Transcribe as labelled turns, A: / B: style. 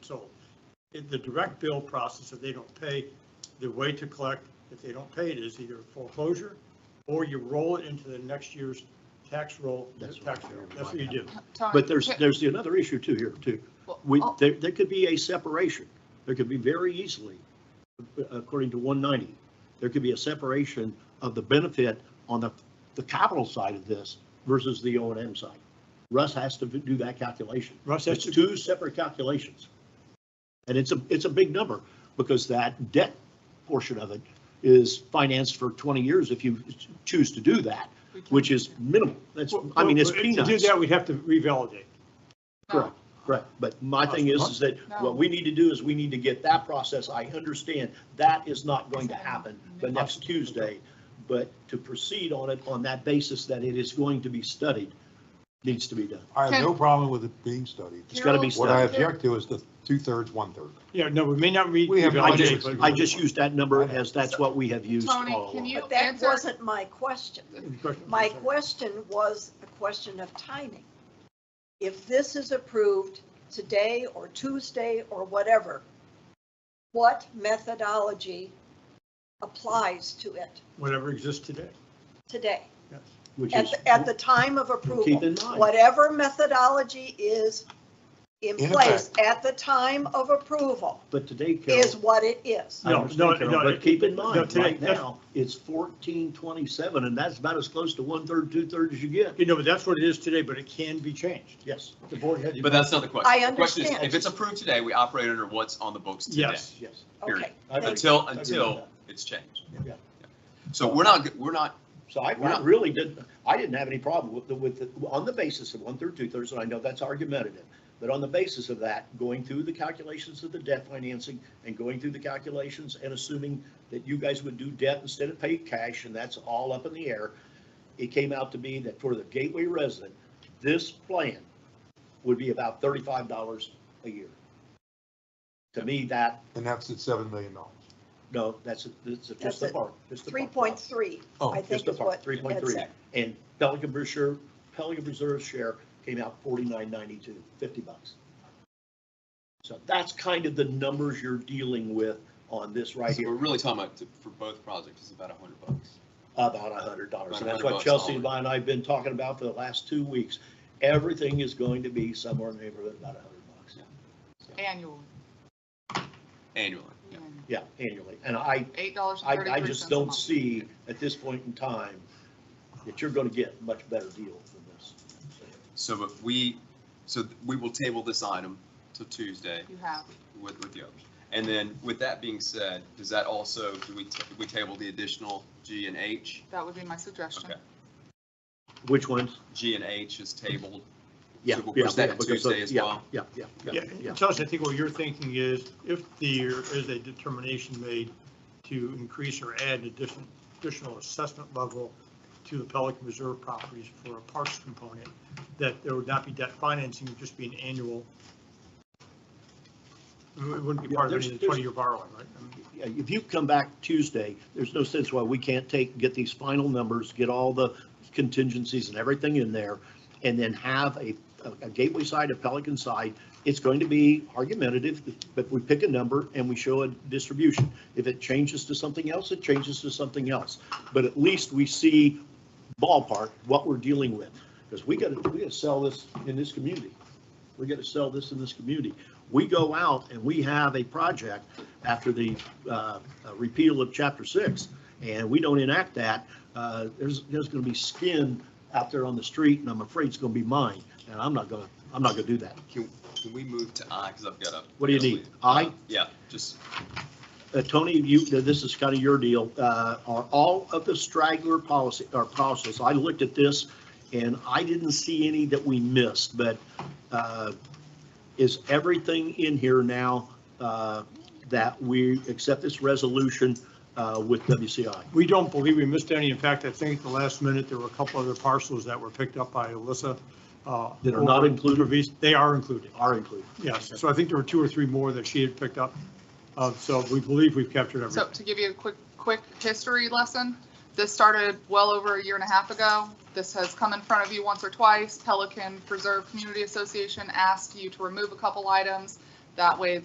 A: So in the direct bill process, if they don't pay, the way to collect, if they don't pay it, is either foreclosure or you roll it into the next year's tax roll,
B: That's
A: tax
B: what
A: roll.
B: I'm
A: That's what you do.
C: Tom,
B: But there's,
C: Chris-
B: there's the another issue too here too.
C: well,
B: We,
C: oh,
B: there, there could be a separation. There could be very easily, according to 190, there could be a separation of the benefit on the, the capital side of this versus the O and M side. Russ has to do that calculation.
A: Russ, that's
B: That's
A: two,
B: two separate calculations. And it's a, it's a big number because that debt portion of it is financed for 20 years if you choose to do that,
C: we can-
B: which is minimal. That's, I mean, it's
A: Well, To do
B: peanuts.
A: that, we'd have to revalidate.
C: No,
B: Correct, correct. But my thing is, is that
C: No.
B: what we need to do is we need to get that process. I understand that is not going to happen the next Tuesday. But to proceed on it on that basis that it is going to be studied needs to be done.
D: I have
C: Can-
D: no problem with it being studied.
B: It's gotta be
C: Carol-
D: What I
B: studied.
D: object to is the two-thirds, one-third.
A: Yeah, no, we may not re-
D: We have-
B: I
A: revalidate,
B: just,
A: but.
B: I just used that number as that's what we have used all
C: Tony,
B: along.
C: can you
E: But that
C: answer?
E: wasn't my question.
A: Question.
E: My question was a question of timing. If this is approved today or Tuesday or whatever, what methodology applies to it
A: Whatever exists today.
E: today?
A: Yes.
B: Which
E: At,
B: is,
E: the- at the time of
B: keep
E: approval,
B: in mind,
E: whatever methodology is in
D: In
E: place at the time of approval
B: but today,
E: is
B: Carol,
E: what it is.
B: I
A: No,
B: understand,
A: no,
B: Carol,
A: no,
B: but keep in
A: no,
B: mind,
A: today,
B: right
A: that's-
B: now, it's 1427 and that's about as close to one-third, two-thirds as you get.
A: You know, but that's what it is today, but it can be changed.
B: Yes,
A: The board had.
F: But that's not the question.
E: I
F: The question is,
E: understand.
F: If it's approved today, we operate under what's on the books today.
A: Yes.
B: yes.
E: Okay.
F: Period.
B: I agree.
F: Until,
B: with
F: until
B: that.
F: it's changed.
B: Yeah.
F: So we're not, we're not,
B: So I, I really didn't, I didn't have any problem with, the- with, the- on the basis of one-third, two-thirds, and I know that's argumentative. But on the basis of that, going through the calculations of the debt financing and going through the calculations and assuming that you guys would do debt instead of pay cash, and that's all up in the air. It came out to be that for the Gateway resident, this plan would be about thirty-five dollars a year. To me, that,
D: And that's at seven million dollars.
B: no, that's, that's just the
E: That's it.
B: park. just the park.
E: 3.3,
D: Oh,
E: I
B: Just
E: think
B: the
E: is
B: park,
E: what.
B: three point three.
E: that's it.
B: And Pelican Reserve, Pelican Reserve share came out forty-nine ninety-two, fifty bucks. So that's kind of the numbers you're dealing with on this right
F: so we're
B: here,
F: really talking about, to- for both projects, it's about a hundred bucks.
B: about a hundred dollars. And that's what
F: About a hundred
B: Chelsea and
F: bucks.
B: I and I have been talking about for the last two weeks. Everything is going to be somewhere in the neighborhood about a hundred bucks.
C: Annual,
F: Annually, yeah.
B: Yeah, annually. And I,
C: eight dollars
B: I,
C: and
B: I
C: thirty-three cents
B: just
C: a
B: don't
C: month.
B: see at this point in time that you're gonna get a much better deal than this.
F: So if we, so we will table this item till Tuesday
C: You have,
F: with, with the others. And then with that being said, does that also, do we, ta- we table the additional G and H?
C: that would be my suggestion.
F: Okay.
B: Which ones?
F: G and H is tabled.
B: Yeah.
F: So we'll
B: yeah,
F: push that
B: yeah,
F: to
B: because of-
F: Tuesday as
B: yeah,
F: well?
B: Yeah, yeah,
A: Yeah,
B: yeah, yeah.
A: Chelsea, I think what you're thinking is if there is a determination made to increase or add an addition- additional assessment level to the Pelican Reserve properties for a parks component, that there would not be debt financing, it would just be an annual. It wouldn't be part of any
B: There's-
A: of the 20-year borrowing, right?
B: Yeah, If you come back Tuesday, there's no sense why we can't take, get these final numbers, get all the contingencies and everything in there, and then have a, a gateway side, a Pelican side. It's going to be argumentative, but we pick a number and we show a distribution. If it changes to something else, it changes to something else. But at least we see ballpark what we're dealing with. Because we gotta, we gotta sell this in this community. We gotta sell this in this community. We go out and we have a project after the uh, uh, repeal of chapter six, and we don't enact that, uh, there's, there's gonna be skin out there on the street, and I'm afraid it's gonna be mine, and I'm not gonna, I'm not gonna do that.
F: Can, can we move to I, because I've got a.
B: What do you need? I,
F: Yeah, just,
B: uh, Tony, you, this is kind of your deal, uh, are all of the straggler policy, or policies, I looked at this, and I didn't see any that we missed, but, uh, is everything in here now, uh, that we accept this resolution, uh, with WCI?
A: We don't believe we missed any. In fact, I think at the last minute, there were a couple other parcels that were picked up by Alyssa. uh,
B: That are not included?
A: over- They are included.
B: are included.
A: Yes, so I think there were two or three more that she had picked up. Uh, So we believe we've captured
C: So
A: everything.
C: to give you a quick, quick history lesson, this started well over a year and a half ago. This has come in front of you once or twice. Pelican Preserve Community Association asked you to remove a couple items. That way